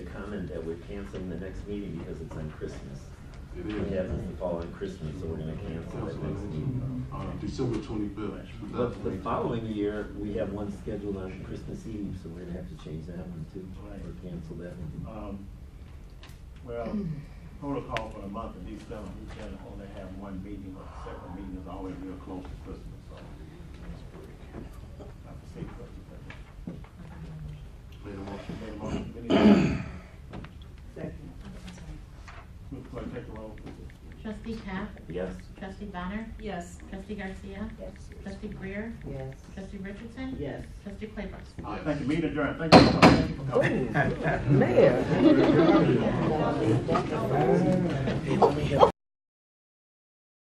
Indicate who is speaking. Speaker 1: The comment that we're canceling the next meeting because it's on Christmas.
Speaker 2: It
Speaker 1: It
Speaker 2: is.
Speaker 1: happens to fall on Christmas, so we're gonna cancel that next meeting.
Speaker 2: Uh, December twenty-fifth.
Speaker 1: But the following year, we have one scheduled on Christmas Eve, so we're gonna have to change that one too, or cancel that one.
Speaker 3: Um, Well, protocol for the month of December, we can only have one meeting, but the second meeting is always real close to Christmas, so. I have to say Christmas, but-
Speaker 2: Made a motion.
Speaker 3: Okay, motion, any other?
Speaker 4: Second.
Speaker 3: Mr. Clerk, take the roll, please.
Speaker 5: Trustee Pat?
Speaker 1: Yes?
Speaker 5: Trustee Bonner?
Speaker 4: Yes.
Speaker 5: Trustee Garcia? Trustee Greer?
Speaker 4: Yes.
Speaker 5: Trustee Richardson?
Speaker 4: Yes.
Speaker 5: Trustee Claybrook?
Speaker 3: All right, thank you, meeting adjourned, thank you for coming, thank you for coming.
Speaker 4: Mayor.
Speaker 1: Hey, let me help